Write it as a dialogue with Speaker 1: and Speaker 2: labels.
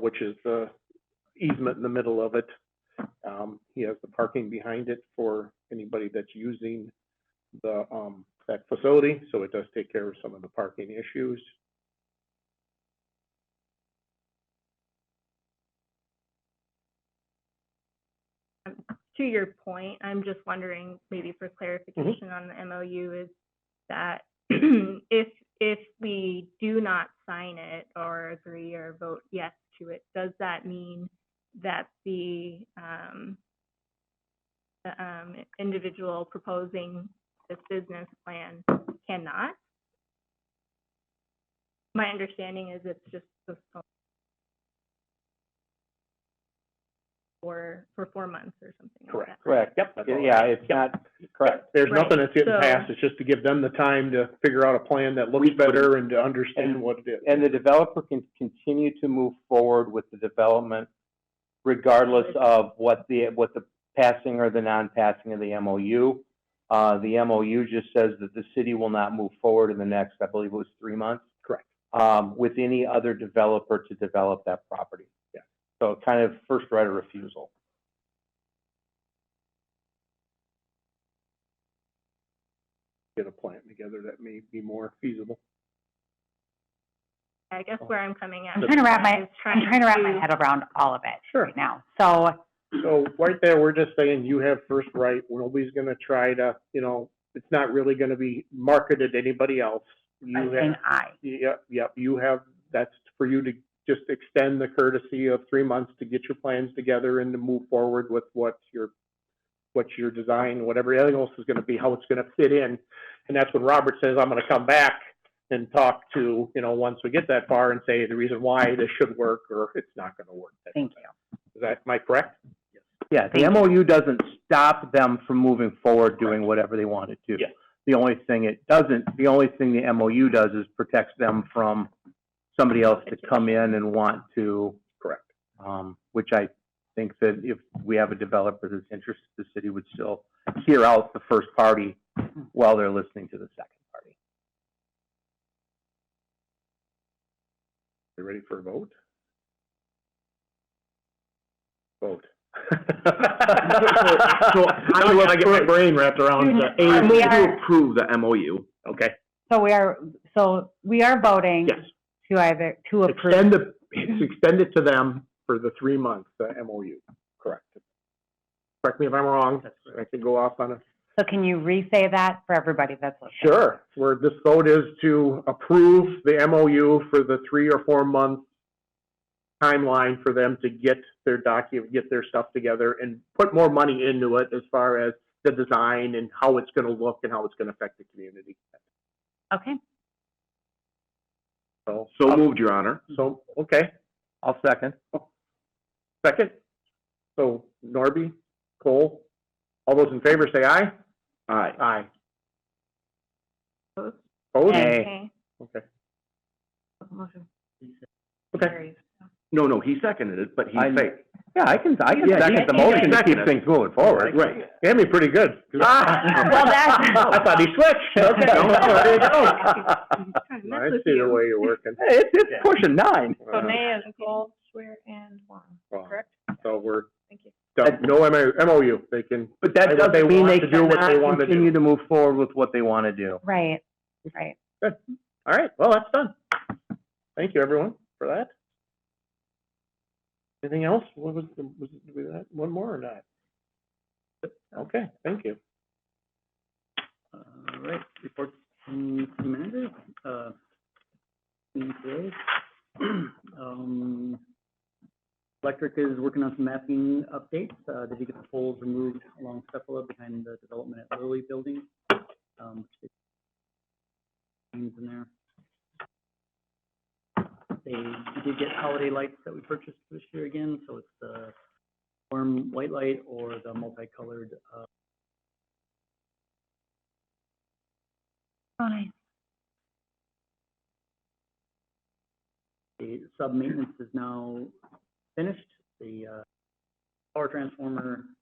Speaker 1: which is the easement in the middle of it. Um, he has the parking behind it for anybody that's using the, um, that facility, so it does take care of some of the parking issues.
Speaker 2: to your point, I'm just wondering, maybe for clarification on the MOU, is that if, if we do not sign it or agree or vote yes to it, does that mean that the, um, the, um, individual proposing this business plan cannot? My understanding is it's just the for, for four months or something like that.
Speaker 3: Correct, yep,
Speaker 1: That's all I
Speaker 3: yeah,
Speaker 1: have.
Speaker 3: it's not, correct.
Speaker 1: There's
Speaker 2: Right,
Speaker 1: nothing that's getting
Speaker 2: so-
Speaker 1: passed, it's just to give them the time to figure out a plan that looks
Speaker 3: We-
Speaker 1: better and to understand
Speaker 3: and-
Speaker 1: what it is.
Speaker 3: And the developer can continue to move forward with the development regardless of what the, what the passing or the non-passing of the MOU. Uh, the MOU just says that the city will not move forward in the next, I believe it was three months.
Speaker 1: Correct.
Speaker 3: Um, with any other developer to develop that property.
Speaker 1: Yeah.
Speaker 3: So kind of first right of refusal.
Speaker 1: Get a plan together that may be more feasible.
Speaker 2: I guess where I'm coming at.
Speaker 4: I'm trying to wrap my,
Speaker 2: is
Speaker 4: I'm trying to wrap my
Speaker 2: to-
Speaker 4: head around all of it
Speaker 1: Sure.
Speaker 4: right now. So,
Speaker 1: So right there, we're just saying you have first right. Nobody's gonna try to, you know, it's not really gonna be marketed to anybody else.
Speaker 4: I'm
Speaker 1: You
Speaker 4: saying
Speaker 1: have,
Speaker 4: aye.
Speaker 1: yep, yep, you have, that's for you to just extend the courtesy of three months to get your plans together and to move forward with what your, what your design, whatever everything else is gonna be, how it's gonna fit in. And that's when Robert says, I'm gonna come back and talk to, you know, once we get that far and say the reason why this should work or it's not gonna work.
Speaker 4: Thank you.
Speaker 1: Is that, am I correct?
Speaker 3: Yeah, the MOU doesn't stop them from moving forward, doing whatever they want to do.
Speaker 1: Yeah.
Speaker 3: The only thing it doesn't, the only thing the MOU does is protects them from somebody else to come in and want to.
Speaker 1: Correct.
Speaker 3: Um, which I think that if we have a developer that's interested, the city would still hear out the first party while they're listening to the second party.
Speaker 1: You ready for a vote? Vote.
Speaker 3: So-
Speaker 1: Now we gotta get my brain wrapped around
Speaker 4: the aim We to are-
Speaker 1: approve the MOU. Okay,
Speaker 4: So we are, so we are voting
Speaker 1: yes.
Speaker 4: to either, to approve.
Speaker 1: Extend the, extend it to them for the three months, the MOU, correct. Correct me if I'm wrong, I could go off on a
Speaker 4: So can you re-say that for everybody that's listening?
Speaker 1: Sure, where this vote is to approve the MOU for the three or four month timeline for them to get their document, get their stuff together and put more money into it as far as the design and how it's gonna look and how it's gonna affect the community.
Speaker 4: Okay,
Speaker 1: So, uh,
Speaker 5: So moved, Your Honor.
Speaker 1: so, okay,
Speaker 3: I'll second.
Speaker 1: second. So Norby, Cole, all those in favor say aye?
Speaker 5: Aye.
Speaker 1: Aye.
Speaker 2: Opposed?
Speaker 1: Opposed?
Speaker 4: Nay.
Speaker 2: Okay.
Speaker 1: Okay, okay.
Speaker 2: Carries.
Speaker 5: No, no, he seconded it, but he
Speaker 3: I-
Speaker 5: faked.
Speaker 3: Yeah, I can, I can
Speaker 5: Yeah,
Speaker 3: second
Speaker 5: you
Speaker 3: the
Speaker 5: can
Speaker 3: motion to
Speaker 5: second
Speaker 3: keep
Speaker 5: it.
Speaker 3: things moving forward.
Speaker 5: Right.
Speaker 1: Damn, you're pretty good.
Speaker 3: Ah.
Speaker 4: Well, that's-
Speaker 1: I thought he switched. Okay.
Speaker 3: No, there you go.
Speaker 2: Trying to mess
Speaker 1: I
Speaker 2: with
Speaker 1: see the
Speaker 2: you.
Speaker 1: way you're working.
Speaker 3: Hey, It's, it's pushing nine.
Speaker 1: Uh,
Speaker 2: and Gold, Swear, and Juan,
Speaker 1: well,
Speaker 2: correct?
Speaker 1: So we're
Speaker 2: Thank you.
Speaker 1: done. No MO MOU. They can,
Speaker 3: But that
Speaker 1: Like what they
Speaker 3: doesn't mean
Speaker 1: want
Speaker 3: they
Speaker 1: to do, what they
Speaker 3: cannot
Speaker 1: wanna do.
Speaker 3: continue to move forward with what they want to do.
Speaker 4: right, right.
Speaker 1: all right, well, that's done. Thank you, everyone, for that. Anything else? What was, the- was, it- was that one more or not? Okay, thank you.
Speaker 6: All right, report from from manager, uh, in today. Um, Electric is working on some mapping updates, uh, they did get the poles removed along Cepola behind the development at Lilly Building. Um, which they- things in there. They did get holiday lights that we purchased this year again, so it's the warm white light or the multicolored, uh,
Speaker 4: Fine.
Speaker 6: The sub-maintenance is now finished. The uh, power transformer Um, uh,